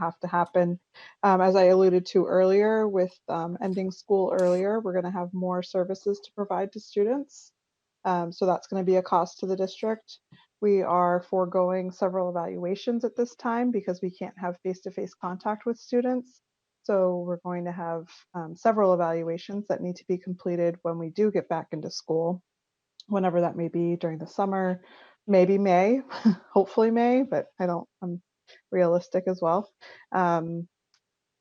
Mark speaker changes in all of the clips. Speaker 1: have to happen. Um, as I alluded to earlier, with um, ending school earlier, we're going to have more services to provide to students. Um, so that's going to be a cost to the district. We are foregoing several evaluations at this time because we can't have face to face contact with students. So we're going to have um, several evaluations that need to be completed when we do get back into school, whenever that may be during the summer, maybe May, hopefully May, but I don't, I'm realistic as well. Um,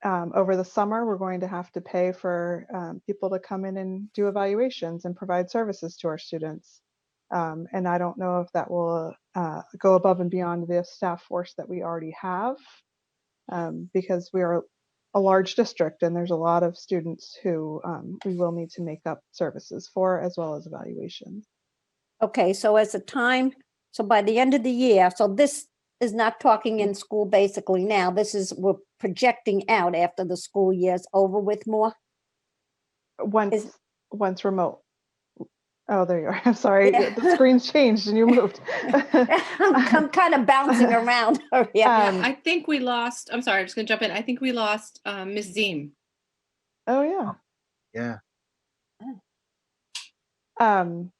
Speaker 1: um, over the summer, we're going to have to pay for um, people to come in and do evaluations and provide services to our students. Um, and I don't know if that will uh, go above and beyond the staff force that we already have um, because we are a large district and there's a lot of students who um, we will need to make up services for as well as evaluations.
Speaker 2: Okay, so as a time, so by the end of the year, so this is not talking in school basically now. This is, we're projecting out after the school year's over with more.
Speaker 1: Once, once remote. Oh, there you are. I'm sorry.
Speaker 2: Yeah.
Speaker 1: The screen's changed and you moved.
Speaker 2: I'm kind of bouncing around. Oh, Yeah.
Speaker 3: Yeah,
Speaker 1: Um,
Speaker 3: I think we lost, I'm sorry, I'm just gonna jump in. I think we lost um, Ms. Zim.
Speaker 1: oh, yeah.
Speaker 4: Yeah,
Speaker 1: Um,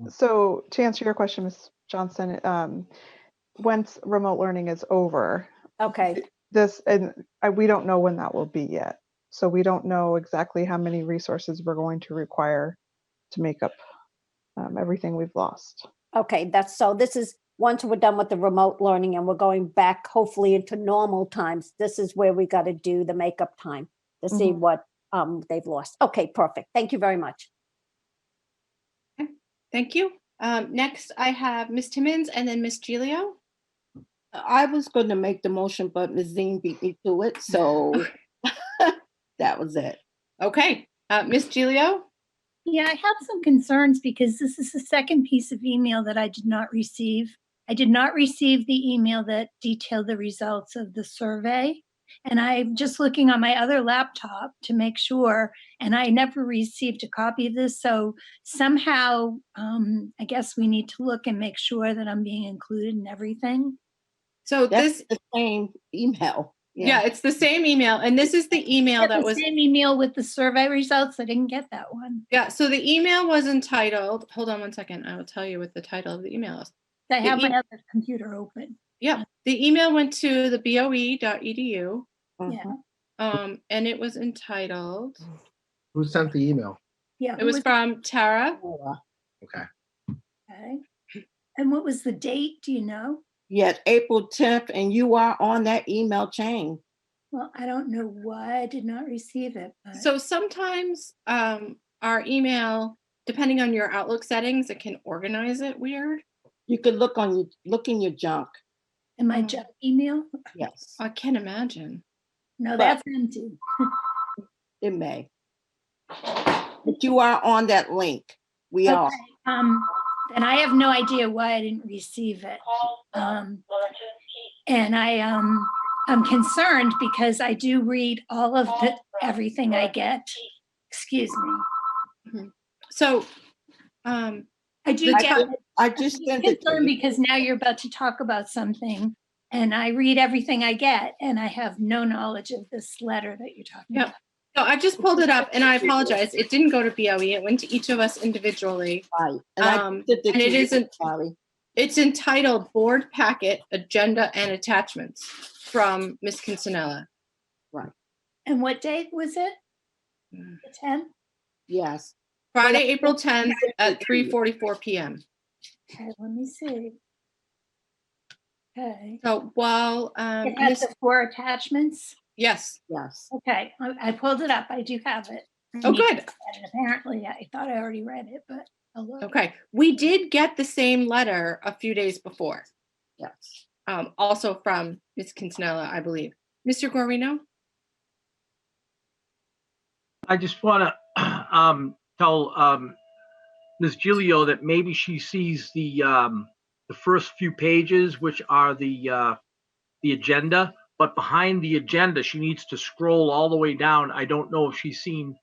Speaker 4: Mm.
Speaker 1: so to answer your question, Ms. Johnson, um, once remote learning is over,
Speaker 2: Okay,
Speaker 1: this, and I, we don't know when that will be yet. So we don't know exactly how many resources we're going to require to make up um, everything we've lost.
Speaker 2: okay, that's, so this is, once we're done with the remote learning and we're going back hopefully into normal times, this is where we got to do the makeup time to see
Speaker 1: Mhm.
Speaker 2: what um they've lost. Okay, perfect. Thank you very much.
Speaker 3: Thank you. Um, Next, I have Ms. Timmons and then Ms. Gilio.
Speaker 5: I was going to make the motion, but Ms. Zine beat me to it, so that was it.
Speaker 3: Okay, uh, Ms. Gilio,
Speaker 6: Yeah, I have some concerns because this is the second piece of email that I did not receive. I did not receive the email that detailed the results of the survey. And I'm just looking on my other laptop to make sure, and I never received a copy of this. So somehow, um, I guess we need to look and make sure that I'm being included in everything.
Speaker 3: so
Speaker 5: That's
Speaker 3: this,
Speaker 5: the same email.
Speaker 3: yeah, it's the same email, and this is the email
Speaker 6: Get
Speaker 3: that
Speaker 6: the
Speaker 3: was,
Speaker 6: Same email with the survey results. I didn't get that one.
Speaker 3: yeah, so the email was entitled, hold on one second, I will tell you what the title of the email is.
Speaker 6: I
Speaker 3: The
Speaker 6: have
Speaker 3: e-
Speaker 6: my other computer open.
Speaker 3: Yeah, the email went to the E boe.edu,
Speaker 6: Yeah.
Speaker 5: Mhm.
Speaker 3: um, and it was entitled,
Speaker 4: who sent the email?
Speaker 6: Yeah.
Speaker 3: it was from Tara.
Speaker 5: Uh,
Speaker 4: Okay,
Speaker 6: Okay. And what was the date? Do you know?
Speaker 5: Yes, April tenth, and you are on that email chain.
Speaker 6: Well, I don't know why I did not receive it. but-
Speaker 3: So sometimes um, our email, depending on your Outlook settings, it can organize it weird.
Speaker 5: You could look on, your look in your junk,
Speaker 6: in my junk email?
Speaker 5: yes,
Speaker 3: I can't imagine.
Speaker 6: No,
Speaker 5: But-
Speaker 6: that's empty.
Speaker 5: it may. But you are on that link, we are.
Speaker 6: Okay, Um, and I have no idea why I didn't receive it. Um, and I, um, I'm concerned because I do read all of the, everything I get. Excuse me.
Speaker 3: So, um,
Speaker 6: I do
Speaker 3: The
Speaker 6: get
Speaker 5: I just sent it to
Speaker 6: concerned
Speaker 5: you.
Speaker 6: because now you're about to talk about something and I read everything I get and I have no knowledge of this letter that you're talking
Speaker 3: Yep.
Speaker 6: about.
Speaker 3: no, I just pulled it up and I apologize. It didn't go to BOE. It went to each of us individually.
Speaker 5: Right, And Oh, I
Speaker 3: Um,
Speaker 5: sent
Speaker 3: and
Speaker 5: to
Speaker 3: it
Speaker 5: you,
Speaker 3: isn't-
Speaker 5: Charlie.
Speaker 3: It's entitled Board Packet Agenda and Attachments from Ms. Kinsella.
Speaker 6: And what date was it?
Speaker 3: Mm.
Speaker 6: The tenth?
Speaker 5: Yes,
Speaker 3: Friday, April 10th at 3:44 p.m.
Speaker 6: Okay, let me see. Okay.
Speaker 3: So while um,
Speaker 6: It has
Speaker 3: Ms-
Speaker 6: the four attachments.
Speaker 3: yes,
Speaker 5: yes.
Speaker 6: Okay, I I pulled it up. I do have it. I
Speaker 3: oh
Speaker 6: need to
Speaker 3: good.
Speaker 6: look at it. Apparently, I thought I already read it, but I'll look.
Speaker 3: Okay, we did get the same letter a few days before.
Speaker 5: Yes.
Speaker 3: um, also from Ms. Kinsella, I believe. Mr. Guarino?
Speaker 7: I just want to um, tell um, Ms. Gilio that maybe she sees the um, the first few pages, which are the uh, the agenda, but behind the agenda, she needs to scroll all the way down. I don't know if she's seen.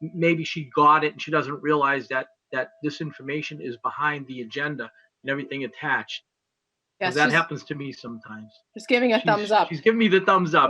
Speaker 7: Maybe she got it and she doesn't realize that that this information is behind the agenda and everything attached. 'cause
Speaker 3: Yes,
Speaker 7: that
Speaker 3: just,
Speaker 7: happens to me sometimes.
Speaker 3: just giving a
Speaker 7: She's-
Speaker 3: thumbs up.
Speaker 7: She's giving me the thumbs up.